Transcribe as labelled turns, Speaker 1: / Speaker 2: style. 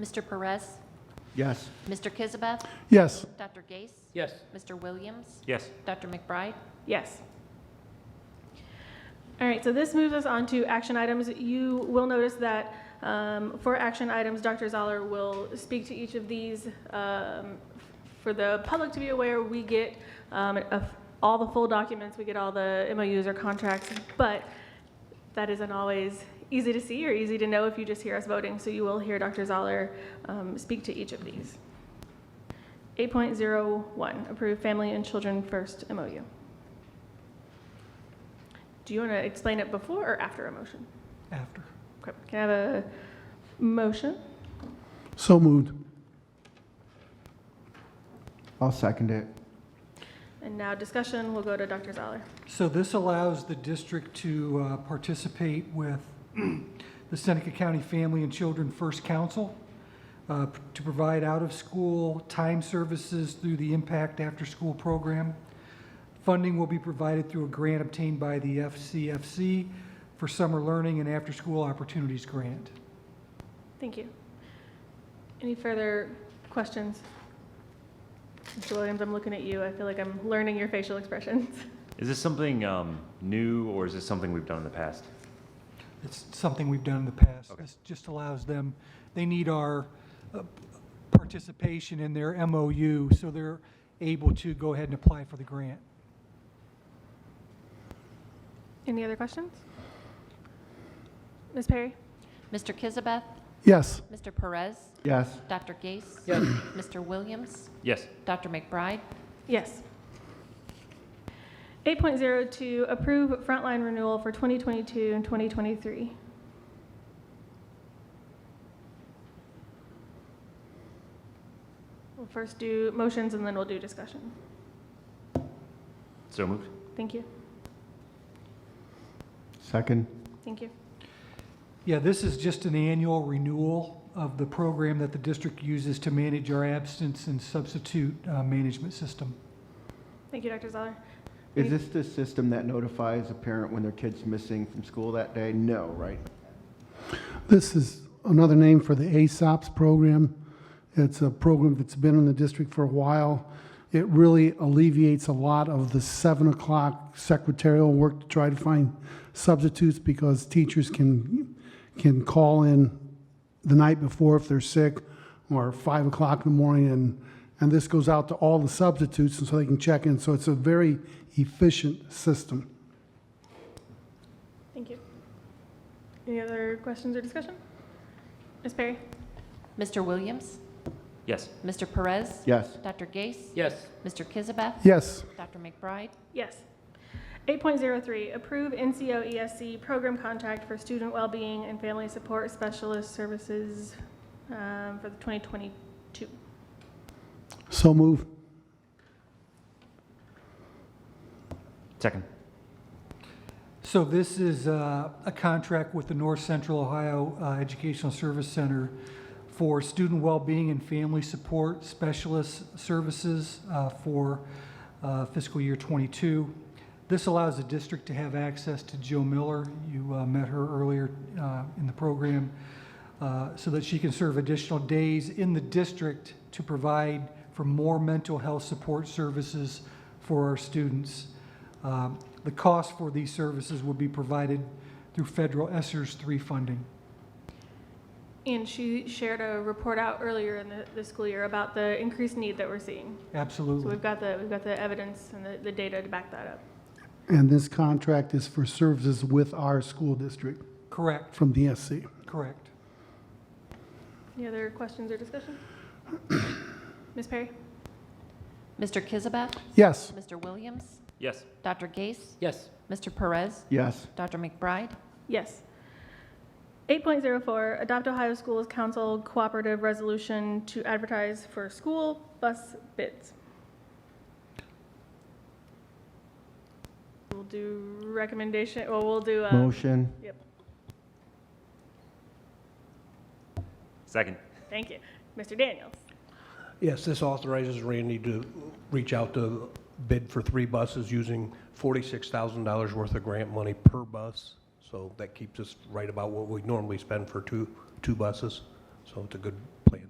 Speaker 1: Mr. Perez,
Speaker 2: Yes.
Speaker 1: Mr. Kizabeth,
Speaker 2: Yes.
Speaker 1: Dr. Gase,
Speaker 3: Yes.
Speaker 1: Mr. Williams,
Speaker 3: Yes.
Speaker 1: Dr. McBride,
Speaker 4: Yes. All right, so this moves us on to action items. You will notice that um, for action items, Dr. Zoller will speak to each of these. Um, For the public to be aware, we get um, of all the full documents, we get all the MOUs or contracts, but that isn't always easy to see or easy to know if you just hear us voting, so you will hear Dr. Zoller um, speak to each of these. 8.01, approve family and children first MOU. Do you want to explain it before or after a motion?
Speaker 2: After.
Speaker 4: Okay, Can I have a motion?
Speaker 2: So moved. I'll second it.
Speaker 4: And now discussion, we'll go to Dr. Zoller.
Speaker 5: So this allows the district to uh, participate with the Seneca County Family and Children First Council uh, to provide out-of-school time services through the Impact After School Program. Funding will be provided through a grant obtained by the FCFC for Summer Learning and After-School Opportunities Grant.
Speaker 4: Thank you. Any further questions? Mr. Williams, I'm looking at you. I feel like I'm learning your facial expressions.
Speaker 3: Is this something um, new or is this something we've done in the past?
Speaker 5: It's something we've done in the past.
Speaker 3: Okay.
Speaker 5: This just allows them, they need our uh, participation in their MOU, so they're able to go ahead and apply for the grant.
Speaker 4: Any other questions? Ms. Perry?
Speaker 1: Mr. Kizabeth,
Speaker 2: Yes.
Speaker 1: Mr. Perez,
Speaker 2: Yes.
Speaker 1: Dr. Gase,
Speaker 3: Yes.
Speaker 1: Mr. Williams,
Speaker 3: Yes.
Speaker 1: Dr. McBride,
Speaker 4: Yes. 8.02, approve frontline renewal for 2022 and 2023. We'll first do motions and then we'll do discussion.
Speaker 3: So moved.
Speaker 4: Thank you,
Speaker 2: Second.
Speaker 4: thank you,
Speaker 5: Yeah, this is just an annual renewal of the program that the district uses to manage our absence and substitute uh, management system.
Speaker 4: thank you, Dr. Zoller.
Speaker 2: Is this the system that notifies a parent when their kid's missing from school that day? No, right?
Speaker 6: This is another name for the ASOPS program. It's a program that's been in the district for a while. It really alleviates a lot of the seven o'clock secretarial work to try to find substitutes because teachers can, can call in the night before if they're sick or five o'clock in the morning and, and this goes out to all the substitutes and so they can check in. So it's a very efficient system.
Speaker 4: Thank you. Any other questions or discussion? Ms. Perry?
Speaker 1: Mr. Williams,
Speaker 3: Yes.
Speaker 1: Mr. Perez,
Speaker 2: Yes.
Speaker 1: Dr. Gase,
Speaker 3: Yes.
Speaker 1: Mr. Kizabeth,
Speaker 6: Yes.
Speaker 1: Dr. McBride,
Speaker 4: Yes. 8.03, approve NCO ESC E program contract for student well-being and family support specialist services um, for the 2022.
Speaker 6: So move.
Speaker 3: Second.
Speaker 5: So this is uh, a contract with the North Central Ohio uh, Educational Service Center for student well-being and family support specialist services uh, for uh, fiscal year '22. This allows the district to have access to Jill Miller. You uh, met her earlier uh, in the program, uh, so that she can serve additional days in the district to provide for more mental health support services for our students. Um, The cost for these services would be provided through federal ESSERS three funding.
Speaker 4: And she shared a report out earlier in the, the school year about the increased need that we're seeing. So
Speaker 5: Absolutely.
Speaker 4: we've got the, we've got the evidence and the, the data to back that up.
Speaker 6: And this contract is for services with our school district
Speaker 5: Correct,
Speaker 6: from the SC.
Speaker 5: correct.
Speaker 4: Any other questions or discussion? Ms. Perry?
Speaker 1: Mr. Kizabeth,
Speaker 6: Yes.
Speaker 1: Mr. Williams,
Speaker 3: Yes.
Speaker 1: Dr. Gase,
Speaker 3: Yes.
Speaker 1: Mr. Perez,
Speaker 2: Yes.
Speaker 1: Dr. McBride,
Speaker 4: Yes. 8.04, adopt Ohio Schools Council cooperative resolution to advertise for school bus bids. We'll do recommendation, well, we'll do, uh,
Speaker 2: Motion.
Speaker 3: Second.
Speaker 4: thank you, Mr. Daniels.
Speaker 7: Yes, this authorizes Randy to reach out to bid for three buses using $46,000 worth of grant money per bus. So that keeps us right about what we normally spend for two, two buses. So it's a good plan.